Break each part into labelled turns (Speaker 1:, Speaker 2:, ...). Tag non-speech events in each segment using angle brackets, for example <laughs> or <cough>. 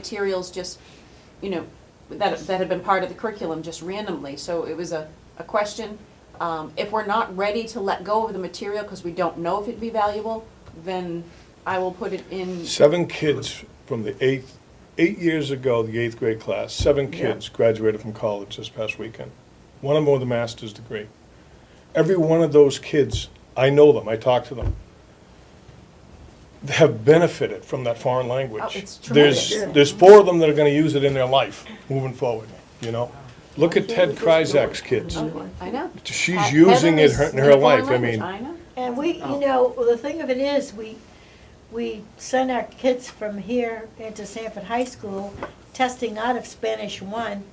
Speaker 1: materials just, you know, that, that had been part of the curriculum just randomly. So it was a, a question. Um, if we're not ready to let go of the material because we don't know if it'd be valuable, then I will put it in.
Speaker 2: Seven kids from the eighth, eight years ago, the eighth grade class, seven
Speaker 1: Yeah.
Speaker 2: kids graduated from college this past weekend. One of them with a master's degree. Every one of those kids, I know them, I talk to them, have benefited from that foreign language.
Speaker 1: Oh, it's
Speaker 2: There's,
Speaker 1: tremendous.
Speaker 2: there's four of them that are gonna use it in their life, moving forward, you know? Look at Ted Kryzak's kids.
Speaker 1: oh, I know.
Speaker 2: She's
Speaker 1: Heather
Speaker 2: using it
Speaker 1: is
Speaker 2: her- in her
Speaker 1: foreign
Speaker 2: life, I
Speaker 1: language,
Speaker 2: mean.
Speaker 1: I know.
Speaker 3: And we, you
Speaker 2: Oh.
Speaker 3: know, the thing of it is, we, we send our kids from here into Sanford High School, testing out of Spanish one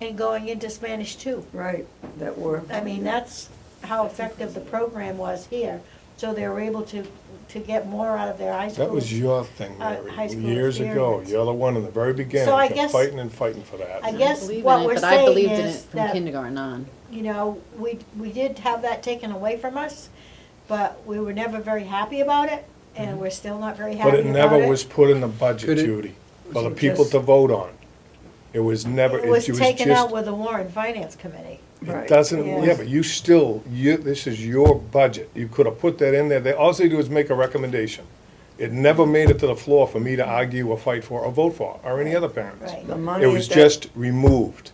Speaker 3: and going into Spanish two.
Speaker 4: Right, that were.
Speaker 3: I mean, that's how effective the program was here, so they were able to, to get more out of their high school.
Speaker 2: That was your thing,
Speaker 3: uh,
Speaker 2: Mary,
Speaker 3: high school
Speaker 2: years ago.
Speaker 3: experience.
Speaker 2: You're the one in the very beginning,
Speaker 3: I
Speaker 2: kept
Speaker 3: guess-
Speaker 2: fighting and fighting for that.
Speaker 3: I
Speaker 5: I
Speaker 3: guess
Speaker 5: believe in
Speaker 3: what
Speaker 5: it,
Speaker 3: we're
Speaker 5: but I
Speaker 3: saying
Speaker 5: believed in it
Speaker 3: is
Speaker 5: from
Speaker 3: that,
Speaker 5: kindergarten on.
Speaker 3: you know, we, we did have that taken away from us, but we were never very happy about it, and we're still not very happy
Speaker 2: Mm-hmm. But
Speaker 3: about
Speaker 2: it
Speaker 3: it.
Speaker 2: never was put in the budget,
Speaker 6: Could it-
Speaker 2: Judy, for the
Speaker 4: was it
Speaker 2: people
Speaker 4: just-
Speaker 2: to vote on. It was never,
Speaker 3: It was taken out
Speaker 2: just,
Speaker 3: with the Warren Finance Committee.
Speaker 2: it
Speaker 4: Right.
Speaker 2: doesn't,
Speaker 3: Yeah.
Speaker 2: yeah, but you still, you, this is your budget. You could have put that in there. They, all they do is make a recommendation. It never made it to the floor for me to argue or fight for or vote for, or any other parents.
Speaker 3: Right.
Speaker 4: The money
Speaker 2: It was
Speaker 4: that-
Speaker 2: just removed.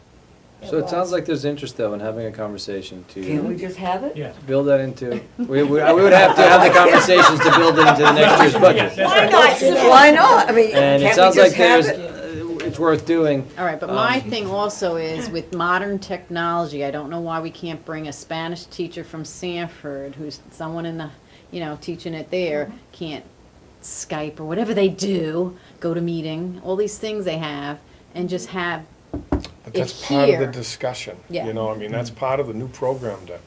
Speaker 3: It
Speaker 6: So it sounds
Speaker 3: was.
Speaker 6: like there's interest though in having a conversation
Speaker 4: Can't we
Speaker 6: to
Speaker 4: just have it?
Speaker 7: Yeah.
Speaker 6: build that into, we, we, we would have to have the conversations to build it into the next year's budget.
Speaker 7: Yes,
Speaker 3: Why not?
Speaker 4: Why not? I mean,
Speaker 6: And it
Speaker 4: can't
Speaker 6: sounds
Speaker 4: we
Speaker 6: like
Speaker 4: just have
Speaker 6: there's,
Speaker 4: it?
Speaker 6: uh, it's worth doing.
Speaker 5: All right, but my thing also is with modern technology, I don't know why we can't bring a Spanish teacher from Sanford, who's someone in the, you know, teaching it there, can't Skype or whatever they do, go to meeting, all these things they have, and just have,
Speaker 2: But
Speaker 5: It's
Speaker 2: that's part of the
Speaker 5: here.
Speaker 2: discussion,
Speaker 5: Yeah.
Speaker 2: you know, I mean, that's part of the new program to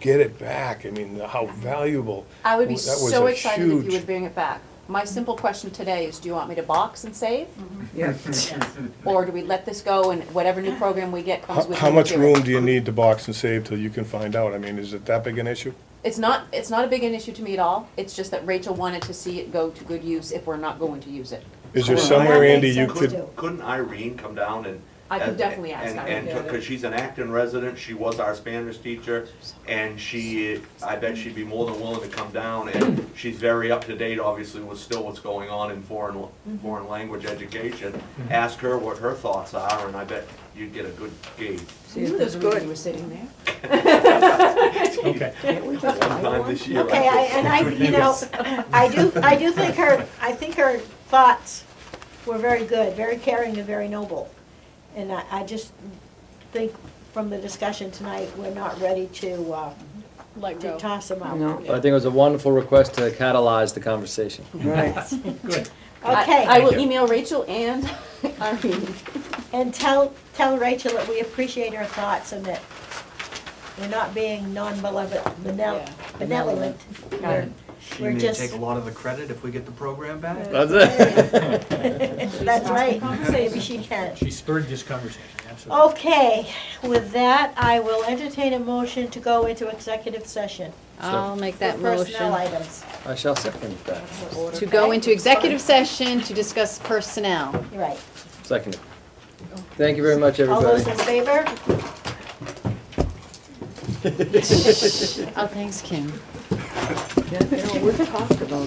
Speaker 2: get it back, I mean, how valuable.
Speaker 1: I would be
Speaker 2: That was
Speaker 1: so
Speaker 2: a
Speaker 1: excited if you
Speaker 2: huge-
Speaker 1: would bring it back. My simple question today is, do you want me to box and save?
Speaker 2: Mm-hmm.
Speaker 4: Yeah.
Speaker 1: Or do we let this go and whatever new program we get comes
Speaker 2: How,
Speaker 1: with it?
Speaker 2: how much
Speaker 1: we do it?
Speaker 2: room do you need to box and save till you can find out, I mean, is it that big an issue?
Speaker 1: It's not, it's not a big an issue to me at all. It's just that Rachel wanted to see it go to good use if we're not going to use it.
Speaker 2: Is there
Speaker 3: Well,
Speaker 2: somewhere,
Speaker 3: that
Speaker 2: Andy,
Speaker 3: makes
Speaker 2: you
Speaker 3: sense
Speaker 2: could,
Speaker 3: too.
Speaker 8: Couldn't Irene come down and?
Speaker 1: I could definitely ask
Speaker 8: and-
Speaker 1: Irene.
Speaker 8: And, because she's an Acton resident, she was our Spanish teacher, and she, I bet she'd be more than willing to come down, and she's very up to date, obviously, with still what's going on in foreign, foreign language education.
Speaker 9: Mm-hmm.
Speaker 8: Ask her what her thoughts are, and I bet you'd get a good gauge.
Speaker 4: See, if it's good.
Speaker 1: sitting there.
Speaker 7: Okay.
Speaker 4: Can't we just
Speaker 8: One
Speaker 4: have
Speaker 8: time
Speaker 4: one?
Speaker 8: this year.
Speaker 3: Okay, I, and I, you know, I do, I do think her, I think her thoughts were very good, very caring and very noble. And I, I just think from the discussion tonight, we're not ready to, uh,
Speaker 10: Let
Speaker 3: to
Speaker 10: go.
Speaker 3: toss them out.
Speaker 4: No.
Speaker 6: I think it was a wonderful request to catalyze the conversation.
Speaker 4: <laughs>
Speaker 1: I
Speaker 4: Right.
Speaker 3: Okay,
Speaker 1: will email Rachel and <laughs> Irene.
Speaker 3: and tell, tell Rachel that we appreciate her thoughts and that we're not being non-malevolent, benevol- benevolent. We're-
Speaker 9: She
Speaker 3: We're
Speaker 9: may
Speaker 3: just-
Speaker 9: take a lot of the credit if we get the program back.
Speaker 6: That's it.
Speaker 3: That's right, maybe she can.
Speaker 7: She spurred this conversation, absolutely.
Speaker 3: Okay, with that, I will entertain a motion to go into executive session
Speaker 5: I'll make
Speaker 3: for
Speaker 5: that
Speaker 3: personnel
Speaker 5: motion.
Speaker 3: items.
Speaker 6: I shall second that,
Speaker 5: To go into executive session to discuss personnel.
Speaker 3: You're Right.
Speaker 6: second it. Thank you very much,
Speaker 3: All
Speaker 6: everybody.
Speaker 3: those in favor?
Speaker 5: Oh, thanks, Kim. Oh,
Speaker 4: Yeah, you know, we've talked about